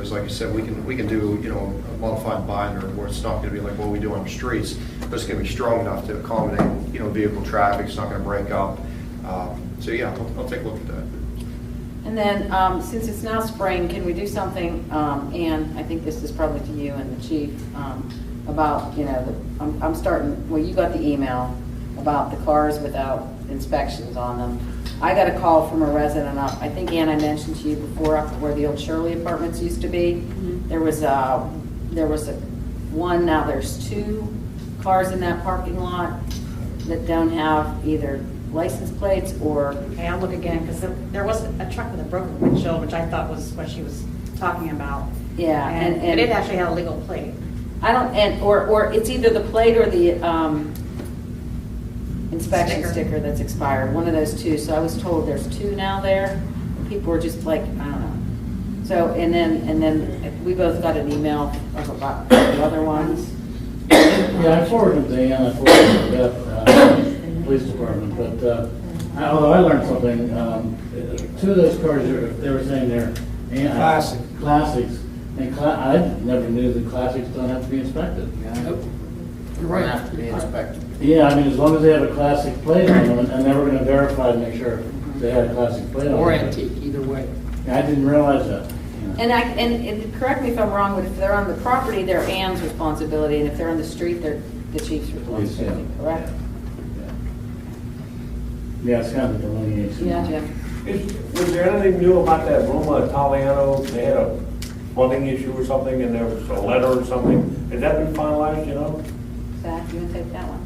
because like you said, we can, we can do, you know, a modified binder where it's not gonna be like what we do on the streets, but it's gonna be strong enough to accommodate, you know, vehicle traffic, it's not gonna break up. Um, So yeah, I'll, I'll take a look at that. And then, um, since it's now spring, can we do something, um, and I think this is probably to you and the chief, um, about, you know, the- I'm I'm starting, well, you got the email about the cars without inspections on them. I got a call from a resident up, I think Ann, I mentioned to you before, up where the old Shirley Apartments used to be. There was a, there was a, one, now there's two cars in that parking lot that don't have either license plates or Okay, I'll look again, because there was a truck with a broken windshield, which I thought was what she was talking about. Yeah, and- But it and- actually had a legal plate. I don't, and, or, or it's either the plate or the um, inspection Sticker. sticker that's expired, one of those two. So I was told there's two now there. People are just like, I don't know. So, and then, and then we both got an email of about the other ones. Yeah, I forwarded the, and I forwarded the, uh, police department, but, uh, I- although I learned something, um, two of those cars, they were- they were saying they're. anti- Classic. Classics, and cla, I never knew that classics don't have to be inspected. You're right. Have to be inspected. Yeah, I mean, as long as they have a classic plate on them, and they were gonna verify to make sure they had a classic plate on them. Or antique, either way. I didn't realize that. you know. And I, and, and correct me if I'm wrong, but if they're on the property, they're Ann's responsibility, and if they're on the street, they're the chief's Police, yeah. responsibility, correct? Yeah, it's kind of delineated. Yeah, Jim? Is- Was there anything new about that Roma Italiano? They had a funding issue or something, and there was a letter or something. Has that been finalized, you know? Zach, you wanna take that one?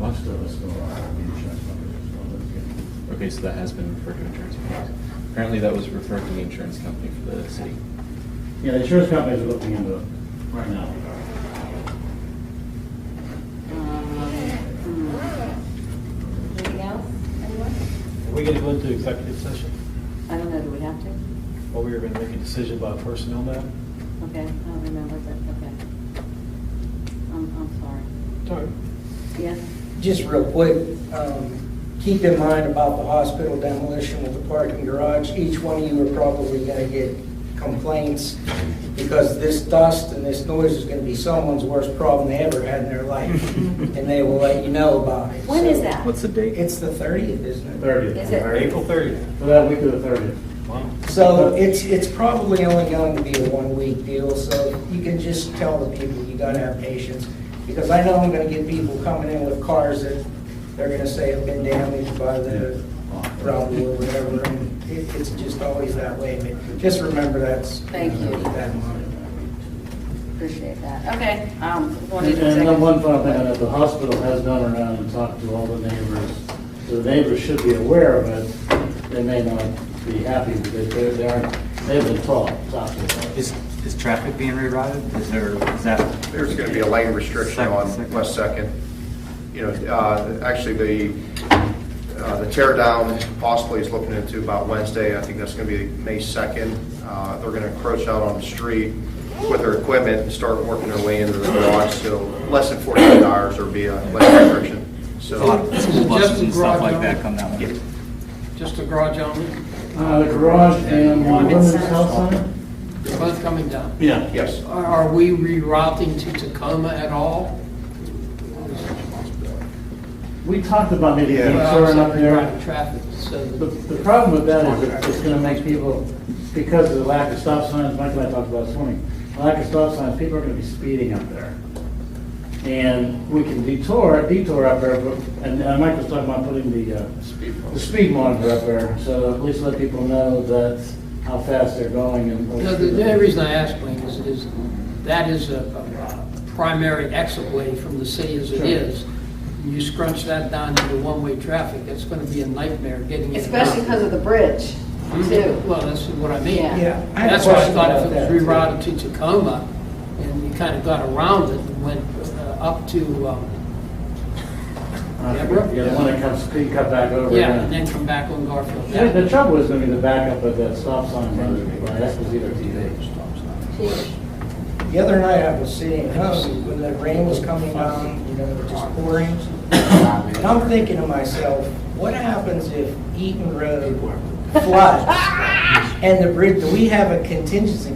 Most of us go out and check numbers. Okay, so that has been referred to insurance companies. Apparently, that was referred to the insurance company for the city. Yeah, the insurance companies are looking into it right now. Um, hmm. Anything else, anyone? Are we going to go into executive session? I don't know, do we have to? Or we are going to make a decision about a personnel matter? Okay, I don't remember, but, okay. I'm, I'm sorry. Sorry. Yes? Just real quick, um, keep in mind about the hospital demolition with the parking garage. Each one of you are probably going to get complaints because this dust and this noise is going to be someone's worst problem they ever had in their life, and they will let you know about it. When is So- that? What's the date? It's the 30th, isn't it? Thirtieth. Is it- April 30th. For that week of the thirtieth. So it's, it's probably only going to be a one-week deal, so you can just tell the people, you got to have patience. Because I know I'm going to get people coming in with cars that they're going to say have been damaged by the rubble or whatever. and it- It's just always that way, but just remember that's. Thank you. That money. Appreciate that. Okay, um, one And need a and then second. one final thing, I know the hospital has gone around and talked to all the neighbors. So The neighbors should be aware of it. They may not be happy because they're, they aren't, they've been taught, taught to it. Is, is traffic being rerouted? Is there, is that? There's going to be a lane restriction on Second. West Second. You know, uh, actually, the, uh, the tear down possibly is looking into about Wednesday. I think that's going to be May 2nd. Uh, They're going to encroach out on the street with their equipment and start working their way into the garage. So less than 48 hours there'll be a lane restriction. A lot of So, This is school just buses a and stuff like garage that come that way. Just a garage only, Uh, the garage and Women's women's center. health center? they're both coming down. Yeah. yes, Are are we rerouting to Tacoma at all? We talked about maybe Yeah. insuring up there. Rerouting Traffic, so The, that- the problem with that is it- it's gonna make people, because of the lack of stop signs, Michael and I talked about this morning, lack of stop signs, people are gonna be speeding up there. And we can detour, detour up there, but, and uh, Mike was talking about putting the, uh, the speed monitor up there, so at least let people know that, how fast they're going and. No, the the only reason I ask, Wayne, is, is that is a, a- a primary exit way from the city as it Sure. Uh, is. You scrunch that down into one-way traffic, that's gonna be a nightmare getting in. and out. Especially because of the bridge, too. Hmm? Well, that's what I mean. Yeah. Yeah. I had a That's why I question thought about if it that, was too. rerouted to Tacoma, and you kind of got around it and went uh, up to, um, Uh, Yeah, the one that comes, you cut back over. yeah, and then come back on Garfield. The the Yeah. trouble is gonna be the backup of that stop sign, right, that was either TV. The other night I was sitting at home when the rain was coming down, you know, just pouring. And I'm thinking to myself, what happens if Eaton Road floods, and the bridge, do we have a contingency